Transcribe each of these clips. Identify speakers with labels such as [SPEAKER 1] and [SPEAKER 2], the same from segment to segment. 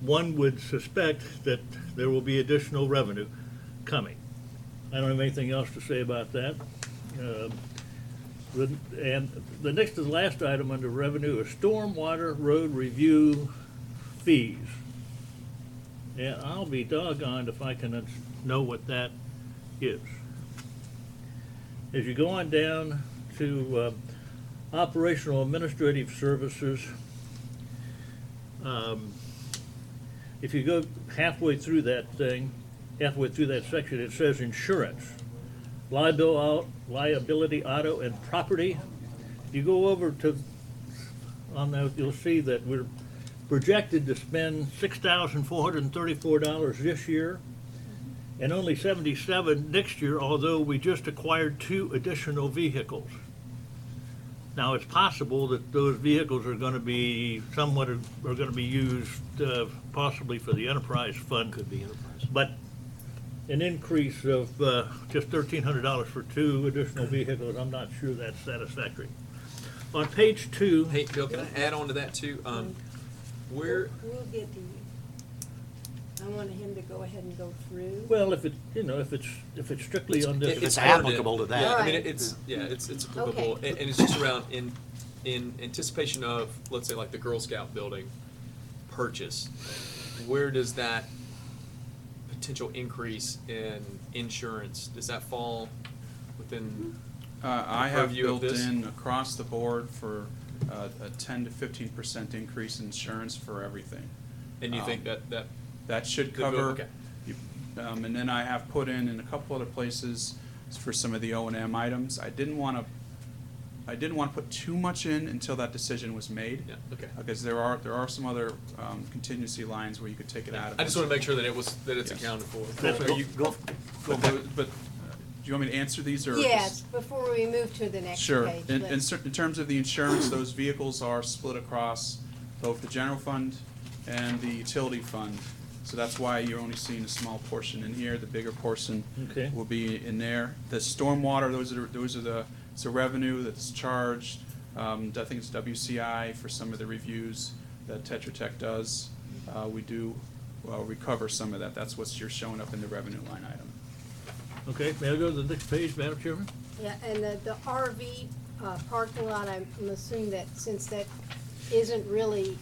[SPEAKER 1] one would suspect that there will be additional revenue coming. I don't have anything else to say about that. Um, the- And the next to the last item under revenue is stormwater road review fees. And I'll be doggone if I can un- know what that is. As you go on down to uh, operational administrative services, um, if you go halfway through that thing, halfway through that section, it says insurance, liabil- liability, auto, and property. If you go over to, on that, you'll see that we're projected to spend six thousand four hundred and thirty-four dollars this year and only seventy-seven next year, although we just acquired two additional vehicles. Now, it's possible that those vehicles are gonna be somewhat, are are gonna be used uh, possibly for the enterprise fund. Could be enterprise. But an increase of uh, just thirteen hundred dollars for two additional vehicles, I'm not sure that's satisfactory. On page two.
[SPEAKER 2] Hey, Bill, can I add on to that too? Um, where,
[SPEAKER 3] We'll get to you. I wanted him to go ahead and go through.
[SPEAKER 1] Well, if it, you know, if it's, if it's strictly on this.
[SPEAKER 4] It's
[SPEAKER 2] covered in-
[SPEAKER 4] applicable to that.
[SPEAKER 2] Yeah, I mean,
[SPEAKER 3] Right.
[SPEAKER 2] it's, yeah, it's, it's
[SPEAKER 3] Okay.
[SPEAKER 2] applicable, and, and it's just around in, in anticipation of, let's say, like the Girl Scout building purchase, where does that potential increase in insurance, does that fall within?
[SPEAKER 5] Uh, I have
[SPEAKER 2] purview of
[SPEAKER 5] built
[SPEAKER 2] this?
[SPEAKER 5] in across the board for uh, a ten to fifteen percent increase in insurance for everything.
[SPEAKER 2] And you
[SPEAKER 5] Um,
[SPEAKER 2] think that, that,
[SPEAKER 5] That should
[SPEAKER 2] The bill-
[SPEAKER 5] cover.
[SPEAKER 2] okay.
[SPEAKER 5] you- Um, and then I have put in in a couple other places for some of the O and M items. I didn't want to, I didn't want to put too much in until that decision was made.
[SPEAKER 2] yeah, okay.
[SPEAKER 5] Because there are, there are some other um, contingency lines where you could take it out of.
[SPEAKER 2] I just wanna make sure that it was, that it's
[SPEAKER 5] Yes.
[SPEAKER 2] accounted for.
[SPEAKER 1] That's
[SPEAKER 2] Are
[SPEAKER 1] cool.
[SPEAKER 2] you-
[SPEAKER 4] Go-
[SPEAKER 5] But, the- but, uh, do you want me to answer these or?
[SPEAKER 3] Yes,
[SPEAKER 5] just-
[SPEAKER 3] before we move to the next
[SPEAKER 5] Sure.
[SPEAKER 3] page.
[SPEAKER 5] In, in
[SPEAKER 3] let's-
[SPEAKER 5] cer- in terms of the insurance, those vehicles are split across both the general fund and the utility fund. So that's why you're only seeing a small portion in here. The bigger portion
[SPEAKER 1] Okay.
[SPEAKER 5] will be in there. The stormwater, those are, those are the, it's the revenue that's charged. Um, I think it's WCI for some of the reviews that Tetra Tech does. Uh, we do, uh recover some of that. That's what's, you're showing up in the revenue line item.
[SPEAKER 1] Okay, may I go to the next page, Madam Chairman?
[SPEAKER 3] Yeah, and the, the RV uh, parking lot, I'm I'm assuming that since that isn't really,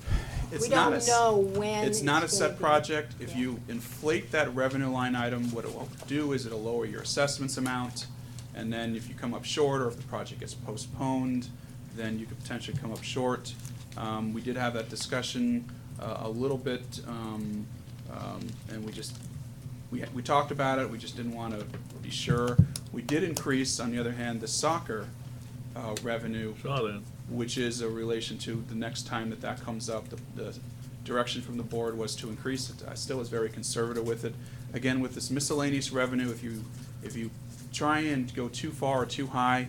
[SPEAKER 5] It's
[SPEAKER 3] we
[SPEAKER 5] not a
[SPEAKER 3] don't
[SPEAKER 5] s-
[SPEAKER 3] know when.
[SPEAKER 5] It's not a
[SPEAKER 3] gonna
[SPEAKER 5] set
[SPEAKER 3] be.
[SPEAKER 5] project. If
[SPEAKER 3] Yeah.
[SPEAKER 5] you inflate that revenue line item, what it will do is it'll lower your assessments amount. And then if you come up short, or if the project gets postponed, then you could potentially come up short. Um, we did have that discussion, uh, a little bit, um, um, and we just, we, we talked about it, we just didn't wanna be sure. We did increase, on the other hand, the soccer, uh, revenue
[SPEAKER 1] Saw that.
[SPEAKER 5] which is a relation to the next time that that comes up, the, the direction from the board was to increase it. I still was very conservative with it. Again, with this miscellaneous revenue, if you, if you try and go too far or too high,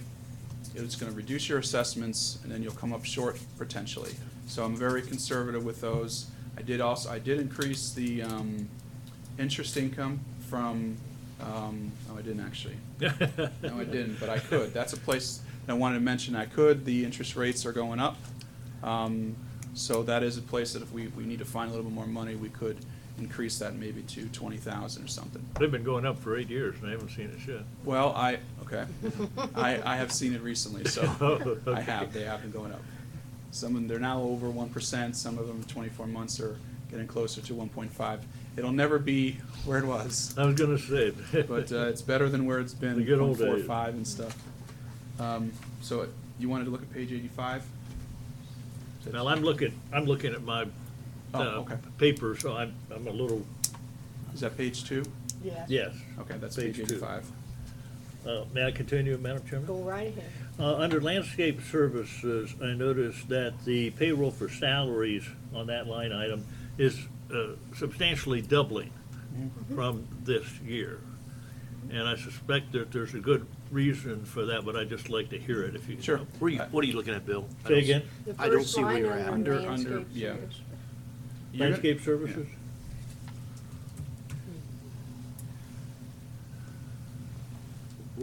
[SPEAKER 5] it's gonna reduce your assessments, and then you'll come up short potentially. So I'm very conservative with those. I did also, I did increase the, um, interest income from, um, oh, I didn't actually. No, I didn't, but I could. That's a place that I wanted to mention I could. The interest rates are going up. Um, So that is a place that if we, we need to find a little bit more money, we could increase that maybe to twenty thousand or something.
[SPEAKER 1] They've been going up for eight years and I haven't seen it yet.
[SPEAKER 5] Well, I, okay. I, I have seen it recently, so I have, they have been going up. Some of them, they're now over one percent, some of them in twenty-four months are getting closer to one point five. It'll never be where it was.
[SPEAKER 1] I was gonna say.
[SPEAKER 5] but uh, it's better than where it's been.
[SPEAKER 1] The good old
[SPEAKER 5] 0.45
[SPEAKER 1] days.
[SPEAKER 5] and stuff. Um, so you wanted to look at page eighty-five?
[SPEAKER 1] Now, I'm looking, I'm looking at my,
[SPEAKER 5] Oh,
[SPEAKER 1] uh,
[SPEAKER 5] okay.
[SPEAKER 1] paper, so I'm, I'm a little,
[SPEAKER 5] Is that page two?
[SPEAKER 3] Yeah.
[SPEAKER 1] yes.
[SPEAKER 5] Okay, that's page
[SPEAKER 1] Page two.
[SPEAKER 5] eighty-five.
[SPEAKER 1] Uh, may I continue, Madam Chairman?
[SPEAKER 3] Go right ahead.
[SPEAKER 1] Uh, Under landscape services, I noticed that the payroll for salaries on that line item is uh, substantially doubling from this year. And I suspect that there's a good reason for that, but I'd just like to hear it if you.
[SPEAKER 5] Sure.
[SPEAKER 4] Where are you, what are you looking at, Bill? I
[SPEAKER 1] Say
[SPEAKER 4] don't-
[SPEAKER 1] again?
[SPEAKER 3] The
[SPEAKER 4] I don't
[SPEAKER 3] first
[SPEAKER 4] see where
[SPEAKER 3] line
[SPEAKER 4] you're at.
[SPEAKER 5] Under- under-
[SPEAKER 3] landscape
[SPEAKER 5] yeah.
[SPEAKER 3] service.
[SPEAKER 5] You're gonna-
[SPEAKER 1] Landscape services?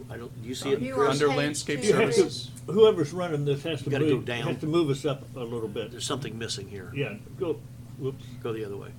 [SPEAKER 4] I don't, do you see it?
[SPEAKER 3] You
[SPEAKER 4] Chris?
[SPEAKER 3] are
[SPEAKER 5] Under
[SPEAKER 3] page
[SPEAKER 5] landscape
[SPEAKER 3] two.
[SPEAKER 1] You have to-
[SPEAKER 5] services.
[SPEAKER 1] Whoever's running this has to
[SPEAKER 4] You gotta go
[SPEAKER 1] move,
[SPEAKER 4] down.
[SPEAKER 1] has to move us up a little bit.
[SPEAKER 4] There's something missing here.
[SPEAKER 1] Yeah, go, whoops.
[SPEAKER 4] Go the other way.